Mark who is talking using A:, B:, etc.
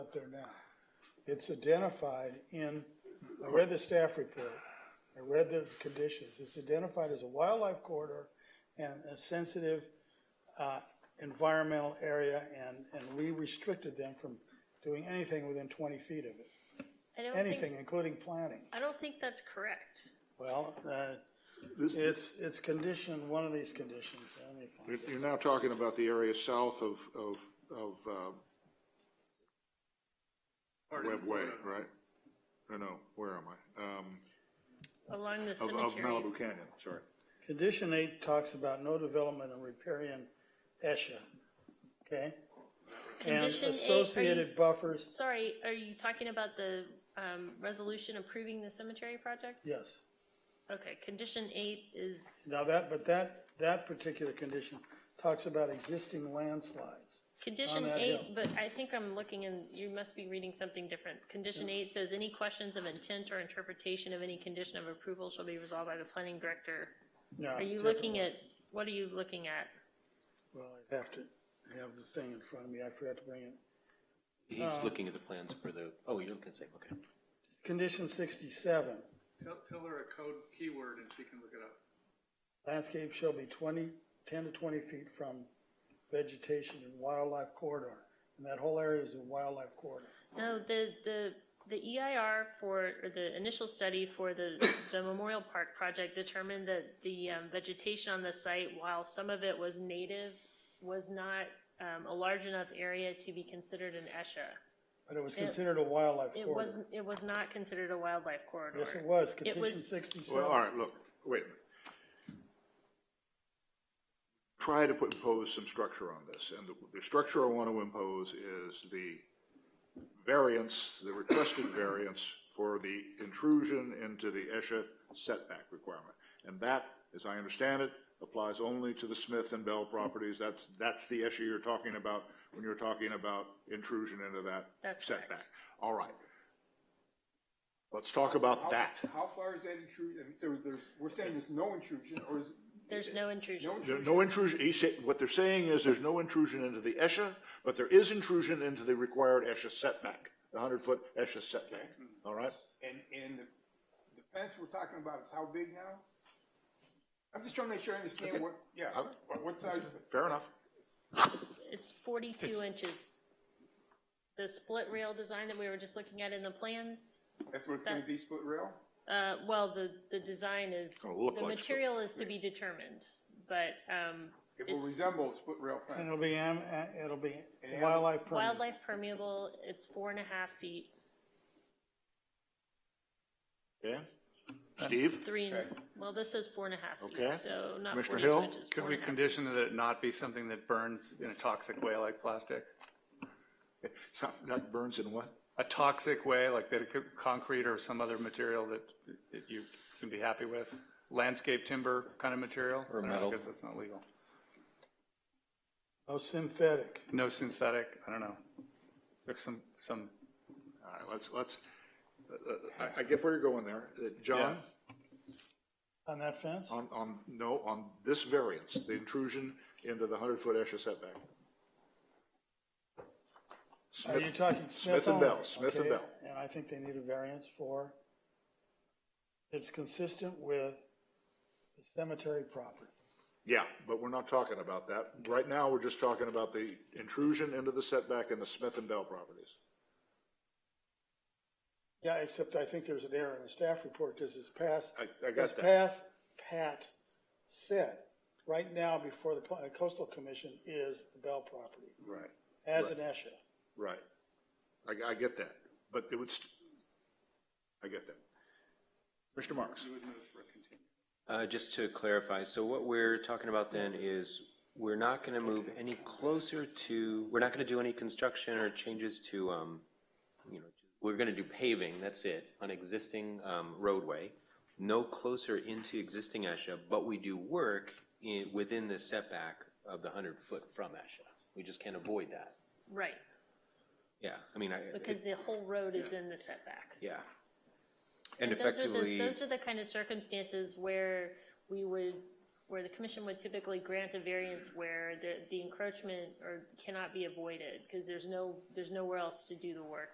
A: up there now. It's identified in, I read the staff report, I read the conditions, it's identified as a wildlife corridor and a sensitive, uh, environmental area, and, and we restricted them from doing anything within twenty feet of it,
B: I don't
A: anything,
B: think,
A: including planting.
B: I don't think that's correct.
A: Well, uh, it's, it's condition, one of these conditions, let me find it.
C: You're now talking about the area south of, of, of, uh, Webb Way, right? Or no, where am I? Um,
B: Along the
C: of, of
B: cemetery,
C: Malibu Canyon, sorry.
A: Condition eight talks about no development and riparian ESHA, okay? And
B: Condition eight, are
A: associated
B: you-
A: buffers,
B: sorry, are you talking about the, um, resolution approving the cemetery project?
A: yes.
B: Okay, condition eight is,
A: Now that, but that, that particular condition talks about existing landslides.
B: condition
A: that
B: eight,
A: hill.
B: but I think I'm looking and you must be reading something different. Condition eight says, any questions of intent or interpretation of any condition of approval shall be resolved by the planning director.
A: No,
B: Are you
A: Uh, different
B: looking
A: one.
B: at, what are you looking at?
A: Well, I have to have the thing in front of me, I forgot to bring it.
D: He's looking at the plans for the, oh, you're looking at same, okay.
A: Condition sixty-seven,
E: Tell, tell her a code keyword and she can look it up.
A: landscape shall be 20, 10 to twenty feet from vegetation and wildlife corridor. And that whole area is a wildlife corridor.
B: No, the, the, the EIR for, or the initial study for the, the Memorial Park project determined that the um, vegetation on the site, while some of it was native, was not um, a large enough area to be considered an E ESHA.
A: But it was considered a wildlife
B: It was,
A: corridor.
B: it was not considered a wildlife corridor.
A: Yes, it was,
B: It was-
A: condition
C: Well, all
A: sixty-seven.
C: right, look, wait a minute. Try to put, impose some structure on this, and the, the structure I want to impose is the variance, the requested variance for the intrusion into the ESHA setback requirement. And that, as I understand it, applies only to the Smith and Bell properties. That's, that's the ESHA you're talking about when you're talking about intrusion into that
B: That's correct.
C: setback. All right. Let's talk about that.
F: How far is that intrusion? I mean, so there's, we're saying there's no intrusion, or is?
B: There's no intrusion.
F: No
C: There-
F: intrusion?
C: No intrusion, he said, what they're saying is there's no intrusion into the ESHA, but there is intrusion into the required ESHA setback, the hundred-foot ESHA setback, all right?
F: And, and the the fence we're talking about is how big now? I'm just trying to make sure I understand what, yeah,
C: Uh,
F: what- what size,
C: Fair enough.
B: It's forty-two inches. The split rail design that we were just looking at in the plans,
F: that's what it's gonna be, split rail?
B: Uh, well, the, the design is,
C: Gonna look
B: the
C: like
B: material is to be determined, but, um,
F: It will
B: it's
F: resemble a split rail
A: And
F: fence.
A: it'll be, am- uh, it'll be
F: And-
A: wildlife permit.
B: wildlife permeable, it's four and a half feet,
C: Okay? Steve?
B: three, and-
F: Okay.
B: well, this is four and a half
C: Okay.
B: feet, so not
C: Commissioner
B: forty-two
C: Hill?
B: inches.
E: Could
B: four
E: we
B: and a half.
E: condition that it not be something that burns in a toxic way like plastic?
C: Something that burns in what?
E: A toxic way, like that it could, concrete or some other material that, that you can be happy with? Landscape timber kind of material? Or
D: metal.
E: Because that's not legal.
A: Oh, synthetic.
E: No synthetic, I don't know. Is there some, some,
C: All right, let's, let's, uh, uh, I, I get where you're going there. Uh, John,
E: Yeah.
A: On that fence?
C: on, on, no, on this variance, the intrusion into the hundred-foot ESHA setback.
A: Are you
C: Smith,
A: talking Smith
C: Smith and
A: only?
C: Bell, Smith and
A: Okay,
C: Bell.
A: And I think they need a variance for, it's consistent with the cemetery property.
C: Yeah, but we're not talking about that. Right now, we're just talking about the intrusion into the setback in the Smith and Bell properties.
A: Yeah, except I think there's an error in the staff report, because it's past.
C: I- I got
A: as
C: that.
A: Path, Pat said, right now before the Pla- coastal commission is the Bell property,
C: Right.
A: as an ESHA.
C: Right. I, I get that, but it would, st- I get that. Mr. Marks?
D: Uh, just to clarify, so what we're talking about then is, we're not gonna move any closer to, we're not gonna do any construction or changes to, um, you know, we're gonna do paving, that's it, on existing, um, roadway, no closer into existing ESHA, but we do work in, within the setback of the hundred foot from ESHA. We just can't avoid that.
B: Right,
D: Yeah, I mean, I.
B: because the whole road is in the setback.
D: Yeah. And
B: Those are the,
D: effectively,
B: those are the kind of circumstances where we would, where the commission would typically grant a variance where the, the encroachment or cannot be avoided, because there's no, there's nowhere else to do the work